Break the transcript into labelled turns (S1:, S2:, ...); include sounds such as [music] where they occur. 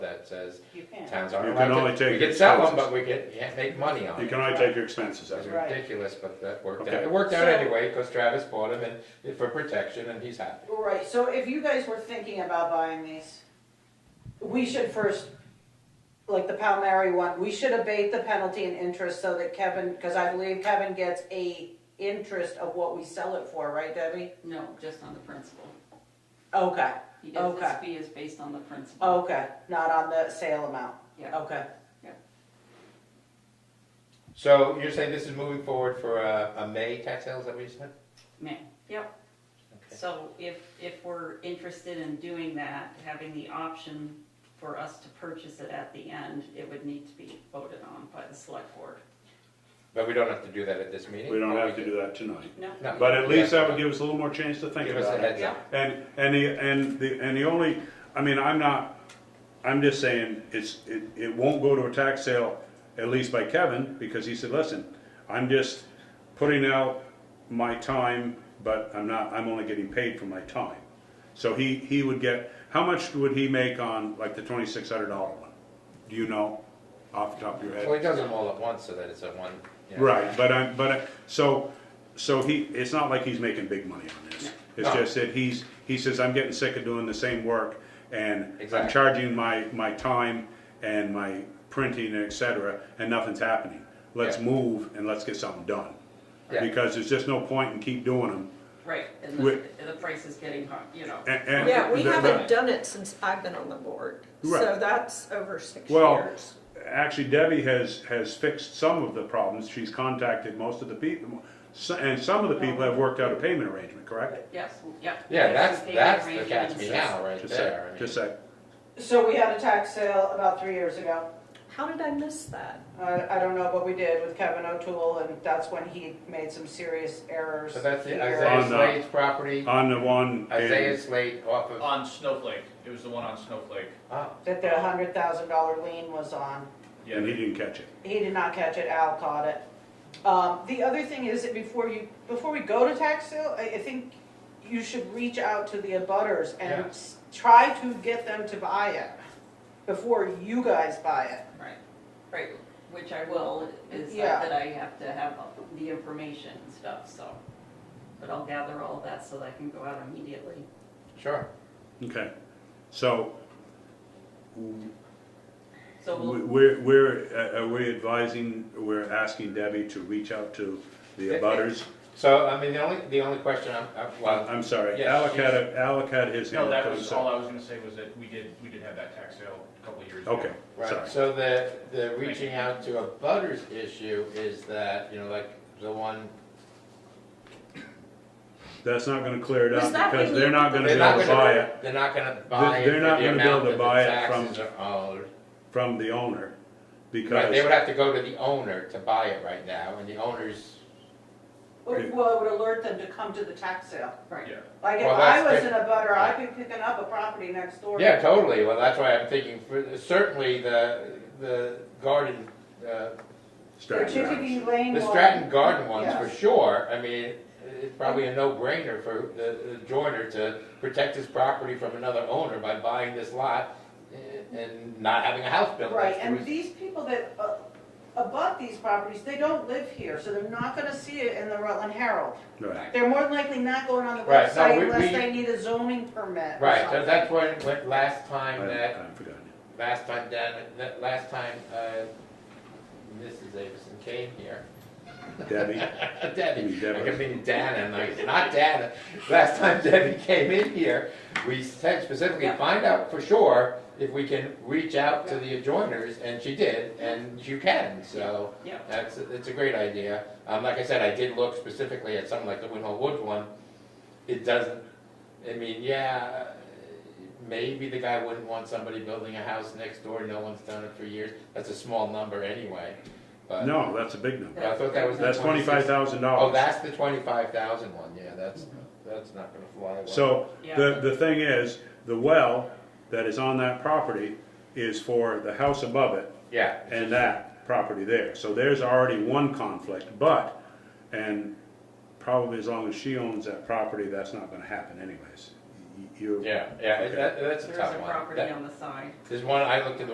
S1: that says
S2: You can.
S1: towns aren't
S3: You can
S1: allowed
S3: only
S1: to-
S3: take
S1: We can sell them,
S3: expenses.
S1: but we can, can't make money on
S3: You
S1: it.
S3: can only take your expenses out.
S1: It's
S3: of it.
S2: Right.
S1: ridiculous, but that worked out.
S3: Okay.
S1: It worked out
S2: So-
S1: anyway, because Travis bought them and, for protection, and he's happy.
S2: Right, so if you guys were thinking about buying these, we should first, like the Palmieri one, we should abate the penalty and interest so that Kevin, because I believe Kevin gets a interest of what we sell it for, right Debbie?
S4: No, just on the principal.
S2: Okay,
S4: He does, his
S2: Okay.
S4: fee is based on the principal.
S1: Oh.
S2: okay, not on the sale amount,
S4: Yeah.
S2: okay.
S1: So you're saying this is moving forward for a, a May tax sale, is that what you said?
S4: Man, yep.
S1: Okay.
S4: So if, if we're interested in doing that, having the option for us to purchase it at the end, it would need to be voted on by the select board.
S1: But we don't have to do that at this meeting?
S3: We don't
S1: or
S3: have to
S1: can-
S3: do that tonight.
S4: No?
S1: No.
S3: But at least that would give us a little more chance to think
S1: Give us a
S3: about it.
S1: heads up.
S3: And, and the, and the, and the only, I mean, I'm not, I'm just saying, it's, it, it won't go to a tax sale, at least by Kevin, because he said, listen, I'm just putting out my time, but I'm not, I'm only getting paid for my time. So he, he would get, how much would he make on like the twenty-six hundred dollar one? Do you know, off the top of your head?
S1: Well, he does them all at once, so that it's a one, you know.
S3: Right, but I, but, I- so, so he, it's not like he's making big money on this. It's
S1: No.
S3: just that he's, he says, I'm getting sick of doing the same work and I'm
S1: Exactly.
S3: charging my, my time and my printing and et cetera, and nothing's happening. Let's
S1: Yeah.
S3: move and let's get something done.
S1: Yeah.
S3: Because there's just no point in keep doing them.
S4: Right, and the,
S3: Wait.
S4: the price is getting hot, you know.
S3: And- and
S5: Yeah, we
S3: the- the-
S5: haven't done it since I've been on the board, so
S3: Right.
S5: that's over six
S3: Well,
S5: years.
S3: actually Debbie has, has fixed some of the problems. She's contacted most of the people. so- And some of the people have worked out a payment arrangement, correct?
S4: Yes, yep.
S1: Yeah,
S4: There's
S1: that's,
S4: some payment
S1: that's the catch
S4: arrangements.
S1: me now, right
S3: Just a sec,
S1: there. I mean.
S3: Just a sec.
S2: So we had a tax sale about three years ago,
S5: How did I miss that?
S2: I, I don't know what we did with Kevin O'Toole, and that's when he made some serious errors.
S1: So that's the
S2: here.
S1: Isaiah
S3: On the-
S1: Slade's property,
S3: On the one. in-
S1: Isaiah Slade off of,
S6: On Snowflake, it was the one on Snowflake.
S1: oh,
S2: That the hundred thousand dollar lien was on.
S6: Yeah,
S3: And he didn't catch it.
S2: He did not catch it, Al caught it. Um, the other thing is that before you, before we go to tax sale, I, I think you should reach out to the abutters and
S1: Yeah.
S2: s- try to get them to buy it before you guys buy it.
S4: Right, right, which I will, is
S2: Yeah.
S4: that I have to have the information and stuff, so. But I'll gather all that so that I can go out immediately.
S1: sure.
S3: Okay, so w-
S4: So we'll,
S3: we're, we're, uh, are we advising, we're asking Debbie to reach out to the abutters?
S1: So, I mean, the only, the only question I'm, I'm- well,
S3: Uh, I'm sorry,
S1: Yes,
S3: Alec had, a- Alec had his
S6: No,
S3: hand up.
S6: that
S3: I'm
S6: was, all
S3: sorry.
S6: I was gonna say was that we did, we did have that tax sale a couple of years ago.
S3: Okay, sorry.
S1: right, so the, the reaching out to a butters issue is that, you know, like, the one,
S3: That's not gonna clear it up
S5: Was that
S3: because
S5: when
S3: they're
S5: you-
S3: not gonna be
S1: they're
S3: able
S1: not
S3: to buy
S1: gonna,
S3: it
S1: they're not gonna buy it
S3: They're
S1: for
S3: not
S1: the
S3: gonna be able
S1: amount
S3: to
S1: that the
S3: buy it from-
S1: taxes are owed.
S3: from the owner
S1: Right, they would
S3: because,
S1: have to go to the owner to buy it right now, and the owner's,
S2: Well,
S3: Yeah.
S2: it would alert them to come to the tax sale.
S4: right,
S6: Yeah,
S2: Like if
S1: Well,
S2: I
S1: that's
S2: was in
S1: different.
S2: a butter, I'd be picking up a property next door.
S1: yeah, totally, well, that's why I'm thinking, for- certainly the, the garden, uh,
S2: The
S3: Stratton Grounds.
S2: Chickadee Lane
S1: The
S2: one.
S1: Stratton Garden ones, for
S2: Yes.
S1: sure, I mean, it's probably a no-brainer for the the joiner to protect his property from another owner by buying this lot and not having a house built
S2: Right,
S1: next to
S2: and
S1: it.
S2: these people that uh, abut these properties, they don't live here, so they're not gonna see it in the Rutland Herald.
S3: Right,
S2: They're more than likely not going on the
S1: Right, no,
S2: website
S1: we-
S2: unless
S1: we-
S2: they need a zoning permit or
S1: Right, so
S2: something.
S1: that's when, when, last
S3: I,
S1: time that,
S3: I've forgotten.
S1: last time Dan, that, last time, uh, Mrs. Davison came here. [laughs]
S3: Debbie,
S1: Uh, Debbie,
S3: Debbie.
S1: I kept thinking Dana, and I, not Dana. Last time Debbie came in here, we said specifically,
S4: Yeah.
S1: find out for sure if we can reach out to the adjoiners, and she did, and you can, so
S4: yeah.
S1: that's, it's a great idea. Um, like I said, I did look specifically at something like the Winhall Woods one, it doesn't, I mean, yeah, maybe the guy wouldn't want somebody building a house next door, no one's done it for years, that's a small number anyway, but.
S3: no, that's a big number.
S1: I thought that was the
S3: That's
S1: 26.
S3: twenty-five thousand
S1: Oh,
S3: dollars. Mm-hmm.
S1: that's the twenty-five thousand one, yeah, that's, that's not gonna fly away.
S3: So,
S4: Yeah.
S3: the, the thing is, the well that is on that property is for the house above it
S1: Yeah,
S3: and that property there. So there's already one conflict, but, and probably as long as she owns that property, that's not gonna happen anyways. You,
S1: yeah, yeah, it- that, that's a
S4: There's
S1: tough
S4: a
S1: one.
S4: property
S1: That-
S4: on the side.
S1: There's one, I looked at the